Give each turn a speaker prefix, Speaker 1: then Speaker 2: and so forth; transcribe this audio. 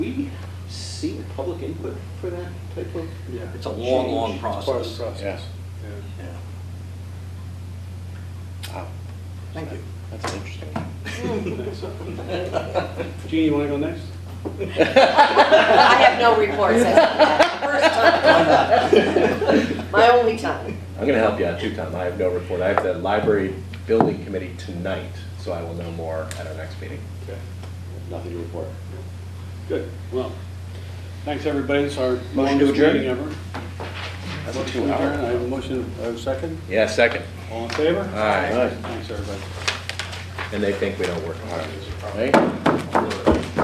Speaker 1: seek public input for that type of?
Speaker 2: Yeah.
Speaker 1: It's a long, long
Speaker 2: It's part of the
Speaker 1: process.
Speaker 2: process.
Speaker 1: Yeah.
Speaker 3: Wow,
Speaker 1: Thank you.
Speaker 3: that's interesting.
Speaker 2: Jeannie, you want to go next?
Speaker 4: I have no reports. after that. First time. My only time.
Speaker 3: I'm gonna help you out too, Tom. I have no report. I have the library building committee tonight, so I will know more at our next meeting.
Speaker 2: Okay.
Speaker 1: Nothing to report.
Speaker 2: Good, well, thanks, everybody, it's our
Speaker 3: Motion to
Speaker 2: longest
Speaker 3: adjourn.
Speaker 2: meeting ever.
Speaker 3: That's a
Speaker 2: Motion
Speaker 3: two
Speaker 2: to adjourn. I
Speaker 3: hour.
Speaker 2: have a motion, I have a second,
Speaker 3: Yeah, second.
Speaker 2: all in favor?
Speaker 3: All right.
Speaker 2: Thanks, everybody.
Speaker 3: And they think we don't work hard, right?